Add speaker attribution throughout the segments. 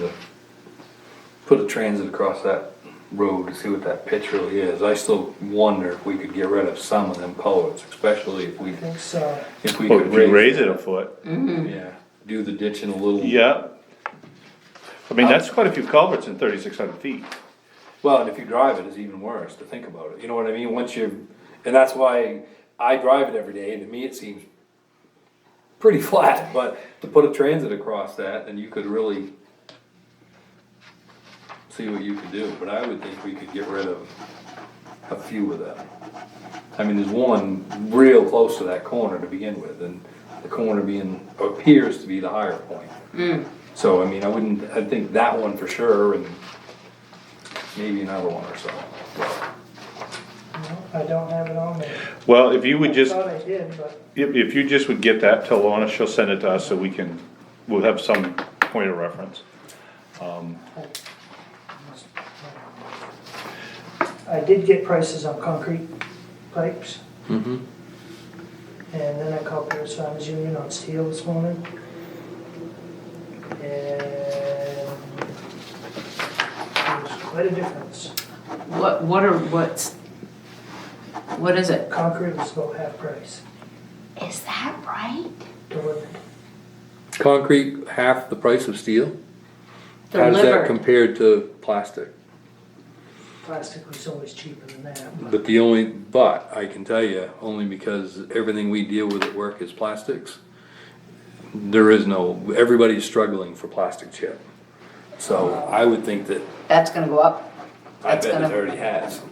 Speaker 1: to put a transit across that road to see what that pitch really is. I still wonder if we could get rid of some of them culverts, especially if we,
Speaker 2: I think so.
Speaker 1: if we
Speaker 3: Well,
Speaker 1: could
Speaker 3: if you
Speaker 1: raise.
Speaker 3: raise it a foot,
Speaker 1: Yeah, do the ditching a little.
Speaker 3: yeah. I mean, that's quite a few culverts in thirty-six hundred feet.
Speaker 1: Well, and if you drive it, it's even worse to think about it. You know what I mean? Once you, and that's why I drive it every day, and to me, it seems pretty flat. But to put a transit across that, then you could really see what you could do. But I would think we could get rid of a few of them. I mean, there's one real close to that corner to begin with, and the corner being, appears to be the higher point. So, I mean, I wouldn't, I think that one for sure, and maybe another one or so.
Speaker 2: No, I don't have it on me.
Speaker 3: Well, if you would
Speaker 2: I
Speaker 3: just,
Speaker 2: thought I did, but
Speaker 3: if, if you just would get that to Lorna, she'll send it to us so we can, we'll have some point of reference.
Speaker 2: I did get prices on concrete pipes. And then I called Paris Farmers Union on steel this morning. And there's quite a difference.
Speaker 4: What, what are, what's, what is it?
Speaker 2: Concrete was about half price,
Speaker 5: Is that right?
Speaker 2: delivered.
Speaker 6: Concrete, half the price of steel? How does that
Speaker 4: Delivered.
Speaker 6: compared to plastic?
Speaker 2: Plastic was always cheaper than that. but-
Speaker 6: But the only, but I can tell you, only because everything we deal with at work is plastics. There is no, everybody's struggling for plastic chip.
Speaker 1: So I would think that,
Speaker 4: That's gonna go up?
Speaker 1: I
Speaker 4: That's
Speaker 1: bet it
Speaker 4: gonna-
Speaker 1: already has.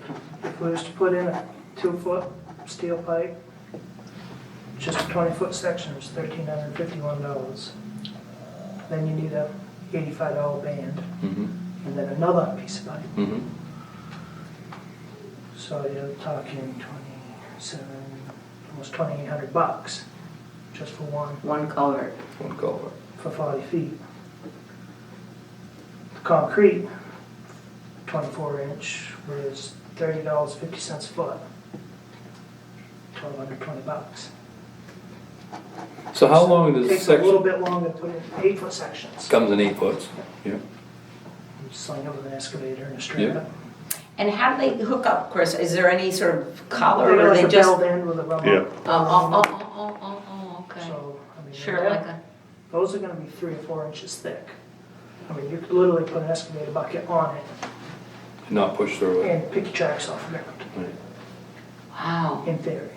Speaker 2: If we was to put in a two-foot steel pipe, just a twenty-foot section is thirteen hundred and fifty-one dollars. Then you need a eighty-five dollar band,
Speaker 6: Mm-hmm,
Speaker 2: and then another piece of pipe.
Speaker 6: mm-hmm.
Speaker 2: So you're talking twenty-seven, almost twenty-eight hundred bucks, just for one,
Speaker 4: One culvert.
Speaker 1: One culvert.
Speaker 2: for forty feet. Concrete, twenty-four inch, was thirty dollars, fifty cents a foot. Twelve hundred twenty bucks.
Speaker 1: So how long does the
Speaker 2: Takes a little
Speaker 1: section?
Speaker 2: bit longer to put in eight foot sections.
Speaker 1: Comes in eight foots. Yeah.
Speaker 2: Sling it with an excavator and a straight.
Speaker 4: And how do they hook up, Chris? Is there any sort of collar
Speaker 2: They're
Speaker 4: or they
Speaker 2: like a
Speaker 4: just?
Speaker 2: belt
Speaker 4: Oh,
Speaker 2: end with a
Speaker 3: Yeah.
Speaker 2: rubber.
Speaker 4: oh, oh, oh, oh, oh, okay.
Speaker 2: So, I mean,
Speaker 4: Sure, like a,
Speaker 2: those are gonna be three or four inches thick. I mean, you could literally put an excavator bucket on it
Speaker 1: Not push through it.
Speaker 2: and pick your tracks off the ground,
Speaker 4: wow.
Speaker 2: in theory.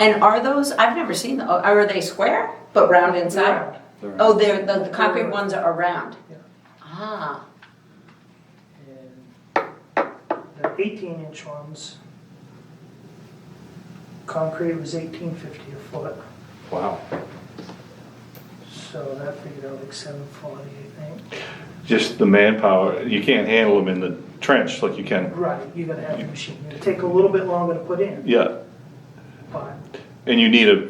Speaker 4: And are those, I've never seen, tho- are they square but round inside?
Speaker 2: Round,
Speaker 4: Oh, they're, the, the concrete ones are round?
Speaker 2: Yeah.
Speaker 4: Ah,
Speaker 2: and The eighteen inch ones, concrete was eighteen fifty a foot,
Speaker 1: Wow.
Speaker 2: so that figured out like seven forty, I think.
Speaker 3: Just the manpower, you can't handle them in the trench like you can,
Speaker 2: Right, you gotta have the machine, it'll take a little bit longer to put in,
Speaker 3: yeah.
Speaker 2: but
Speaker 3: And you need a,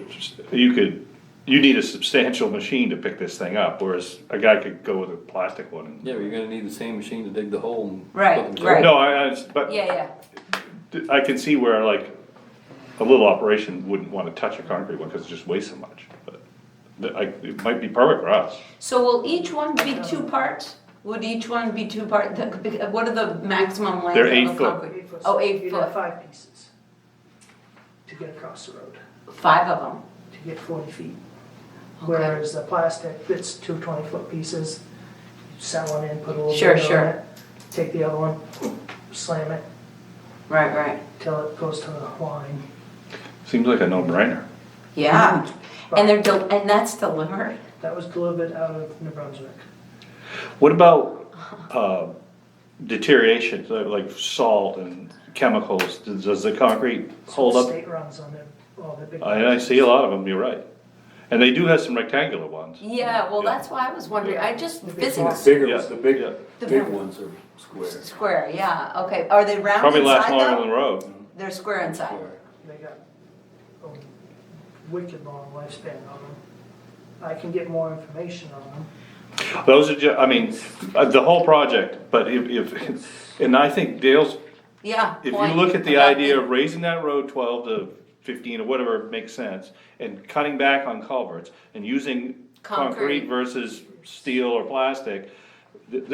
Speaker 3: you could, you need a substantial machine to pick this thing up, whereas a guy could go with a plastic one. and-
Speaker 1: Yeah, but you're gonna need the same machine to dig the hole and. put
Speaker 4: Right,
Speaker 1: the-
Speaker 4: right.
Speaker 3: No, I, I, but
Speaker 4: yeah, yeah.
Speaker 3: I can see where like, a little operation wouldn't wanna touch a concrete one, cause it just weighs so much, but the- I, it might be perfect for us.
Speaker 4: So will each one be two parts? Would each one be two part, the- what are the maximum length
Speaker 3: They're
Speaker 4: of
Speaker 3: eight
Speaker 4: a
Speaker 3: foot.
Speaker 4: concrete?
Speaker 2: eight foot.
Speaker 4: Oh, eight
Speaker 2: You'd have
Speaker 4: foot.
Speaker 2: five pieces to get across the road,
Speaker 4: Five of them,
Speaker 2: to get forty feet.
Speaker 4: Okay.
Speaker 2: Whereas the plastic, it's two twenty foot pieces, set one in, put a little
Speaker 4: Sure,
Speaker 2: bit on
Speaker 4: sure.
Speaker 2: it, take the other one, slam it,
Speaker 4: right, right,
Speaker 2: till it goes to the line.
Speaker 3: Seems like a no-brainer.
Speaker 4: yeah. And they're, del- and that's delivered?
Speaker 2: That was delivered out of New Brunswick.
Speaker 3: What about, uh, deterioration, so like salt and chemicals, does, does the concrete hold
Speaker 2: The
Speaker 3: up?
Speaker 2: State runs on their, all their big.
Speaker 3: I, I see a lot of them, you're right. And they do have some rectangular ones.
Speaker 4: Yeah, well,
Speaker 3: Yeah.
Speaker 4: that's why I was wondering, I just,
Speaker 2: The big
Speaker 4: physics,
Speaker 1: Bigger,
Speaker 3: Yeah,
Speaker 1: the big,
Speaker 3: yeah.
Speaker 4: The
Speaker 1: big
Speaker 4: big-
Speaker 1: ones are square.
Speaker 4: square, yeah, okay, are they round
Speaker 3: Probably last
Speaker 4: inside
Speaker 3: longer than
Speaker 4: though?
Speaker 3: the road.
Speaker 4: They're square inside,
Speaker 1: Square.
Speaker 2: They got a wicked long lifespan on them. I can get more information on them.
Speaker 3: Those are ju, I mean, uh, the whole project, but if, if, and I think Dale's,
Speaker 4: yeah.
Speaker 3: if you
Speaker 4: point
Speaker 3: look at the
Speaker 4: about
Speaker 3: idea of raising that road twelve to fifteen or whatever makes sense, and cutting back on culverts, and using
Speaker 4: Concrete.
Speaker 3: concrete versus steel or plastic,